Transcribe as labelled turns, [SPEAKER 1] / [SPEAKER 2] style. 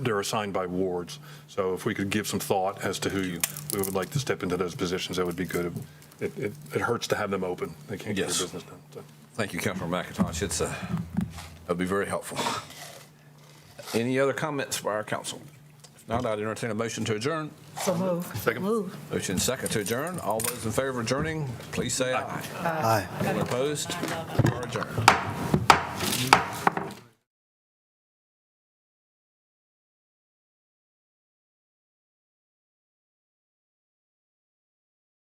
[SPEAKER 1] they're assigned by wards. So if we could give some thought as to who you, we would like to step into those positions, that would be good. It, it, it hurts to have them open. They can't get
[SPEAKER 2] Yes.
[SPEAKER 1] their business done. so.
[SPEAKER 2] Thank you, Councilman McIntosh. It's, uh, that'd be very helpful. Any other comments by our council? If not, I'd entertain a motion to adjourn.
[SPEAKER 3] So move.
[SPEAKER 1] Second.
[SPEAKER 3] Move.
[SPEAKER 2] Motion second to adjourn. All those in favor of adjourning, please say aye.
[SPEAKER 4] Aye.
[SPEAKER 2] All opposed, or adjourned.